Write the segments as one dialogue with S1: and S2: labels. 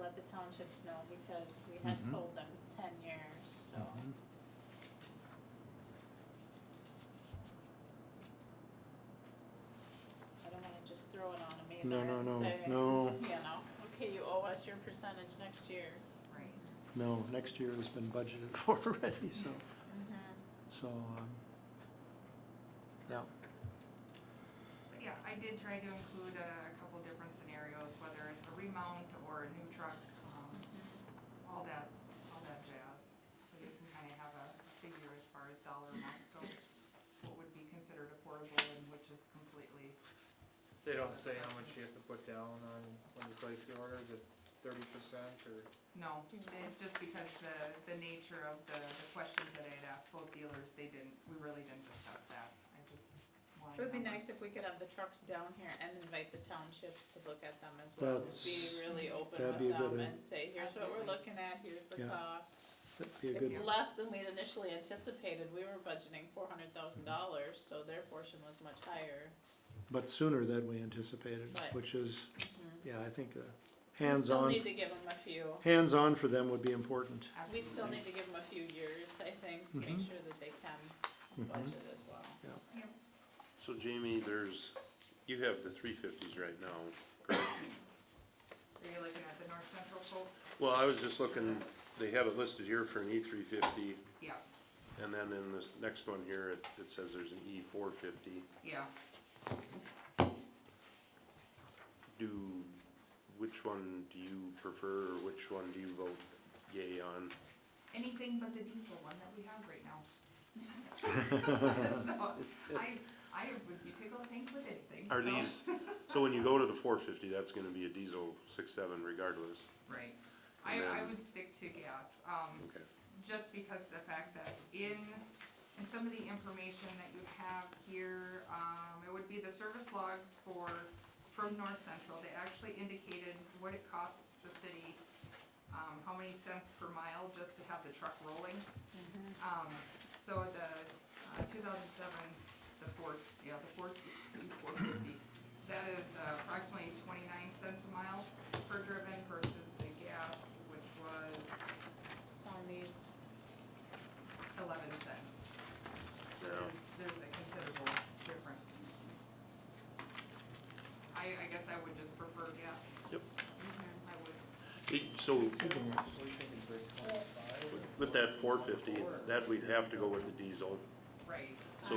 S1: let the townships know because we had
S2: Mhm.
S1: told them ten years, so.
S2: Mhm.
S1: I don't wanna just throw it on them either
S2: No, no,
S1: and
S2: no,
S1: say,
S2: no.
S1: You know, okay, you owe us your percentage next year.
S3: Right.
S2: No, next year has been budgeted for already, so,
S1: Mm-hmm.
S2: so, um, yeah,
S3: But yeah, I did try to include a couple different scenarios, whether it's a remount or a new truck, um,
S1: Mm-hmm.
S3: all that, all that jazz. So you can kinda have a figure as far as dollar amounts go, what would be considered affordable and which is completely,
S4: They don't say how much you have to put down on, when you place the order, is it thirty percent or?
S3: no. it- Just because the, the nature of the, the questions that I had asked both dealers, they didn't, we really didn't discuss that. I just wanted.
S1: It would be
S3: numbers.
S1: nice if we could have the trucks down here and invite the townships to look at them as well, and be
S2: That's-
S1: really open
S2: that'd be
S1: with
S2: a good
S1: them
S2: idea.
S1: and say, here's what we're
S3: Absolutely.
S1: looking at, here's the
S2: Yeah.
S1: cost.
S2: that'd be a good
S1: It's
S2: one.
S1: less than we'd initially anticipated, we were budgeting four hundred thousand dollars, so their portion was much higher.
S2: But sooner than we anticipated,
S1: Right. Mm-hmm.
S2: which is, yeah, I think, uh,
S1: We Still
S2: hands-on,
S1: need to give them a few,
S2: hands-on for them would be important.
S1: we still
S3: Absolutely.
S1: need to give them a few years, I think, to make
S2: Mhm.
S1: sure that they can
S2: Mhm.
S1: budget as well.
S5: So Jamie, there's, you have the three fifties right now. correct?
S3: Are you looking at the North Central quote?
S5: Well, I was just looking, they have it listed here for an E three fifty,
S3: Yeah,
S5: and then in this next one here, it, it says there's an E four fifty.
S3: yeah.
S5: Do, which one do you prefer, or which one do you vote yay on?
S3: anything but the diesel one that we have right now. So, I, I would be tickled pink with anything,
S5: Are
S3: so-
S5: these, so when you go to the four fifty, that's gonna be a diesel six seven regardless,
S3: Right, I, I
S5: then-
S3: would stick to gas, um,
S5: okay?
S3: just because the fact that in, in some of the information that you have here, um, it would be the service logs for, from North Central, they actually indicated what it costs the city, um, how many cents per mile just to have the truck rolling. Um, so the, uh, two thousand seven, the Ford, yeah, the Ford E four fifty, that is uh, approximately twenty-nine cents a mile per driven versus the gas, which was
S1: It's on these,
S3: eleven cents.
S5: Yeah.
S3: There's, there's a considerable difference. I, I guess I would just prefer gas. Mm-hmm,
S5: Yep.
S3: I would,
S5: It- So with that four fifty, that we'd have to go with the diesel.
S3: right.
S5: So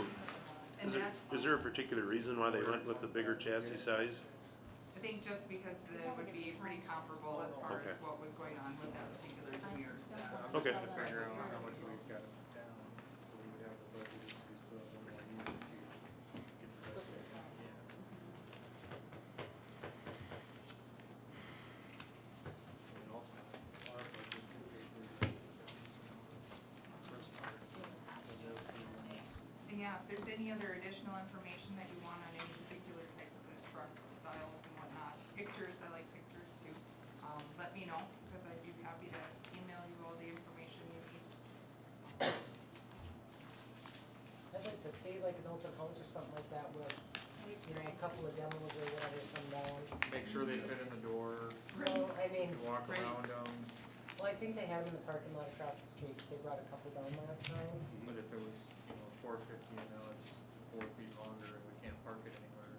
S3: And
S5: Is there,
S3: that's,
S5: is there a particular reason why they went with the bigger chassis size?
S3: I think just because the, it would be pretty comparable as far as
S5: Okay.
S3: what was going on with that particular Demers. uh,
S5: Okay.
S4: Trying to figure out how much we've got to put down, so we would have the budget, so we still have one more year to get the rest of it. Yeah. And ultimately, our budget could pay for the first part, and they'll pay the next.
S3: And yeah, if there's any other additional information that you want on any particular types of trucks, styles and whatnot, pictures, I like pictures too. Um, let me know, cause I'd be happy to email you all the information you need.
S6: I'd like to see like an open house or something like that with, you know, a couple of demos or whatever come down.
S4: Make sure they fit in the door,
S6: Well, I mean,
S4: you walk
S3: Right.
S4: around them,
S6: well, I think they had them in the parking lot across the street, 'cause they brought a couple down last time.
S4: but if it was, you know, four fifty, and now it's four feet longer, and we can't park it anywhere.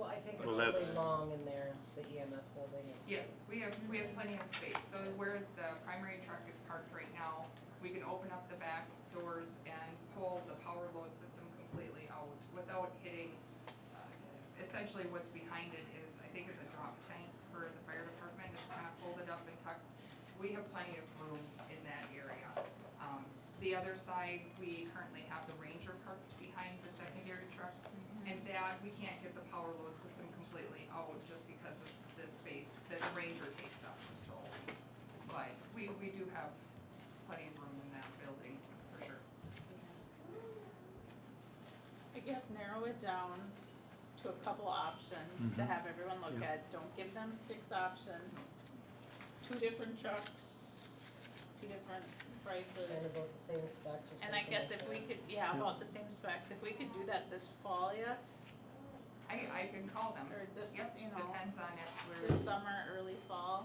S6: Well, I think it's
S5: Well,
S6: really
S5: that's-
S6: long in there, the EMS building is.
S3: Yes, we have, we have plenty of space, so where the primary truck is parked right now, we can open up the back doors and pull the power load system completely out without hitting. uh, Essentially, what's behind it is, I think it's a drop tank for the fire department, it's kind of folded up and tucked. We have plenty of room in that area. Um, the other side, we currently have the Ranger parked behind the secondary truck. And that, we can't get the power load system completely out just because of the space that the Ranger takes up, so. But we, we do have plenty of room in that building, for sure.
S1: I guess narrow it down to a couple options to
S2: Mhm.
S1: have everyone look
S2: Yeah.
S1: at, don't give them six options. Two different trucks, two different
S6: Kind of
S1: prices.
S6: about the same specs or something like that.
S1: And I guess if we could, yeah,
S2: Yeah.
S1: about the same specs, if we could do that this fall yet,
S3: I, I can call them.
S1: or this,
S3: Yep,
S1: you know,
S3: depends on if we're.
S1: this summer, early fall,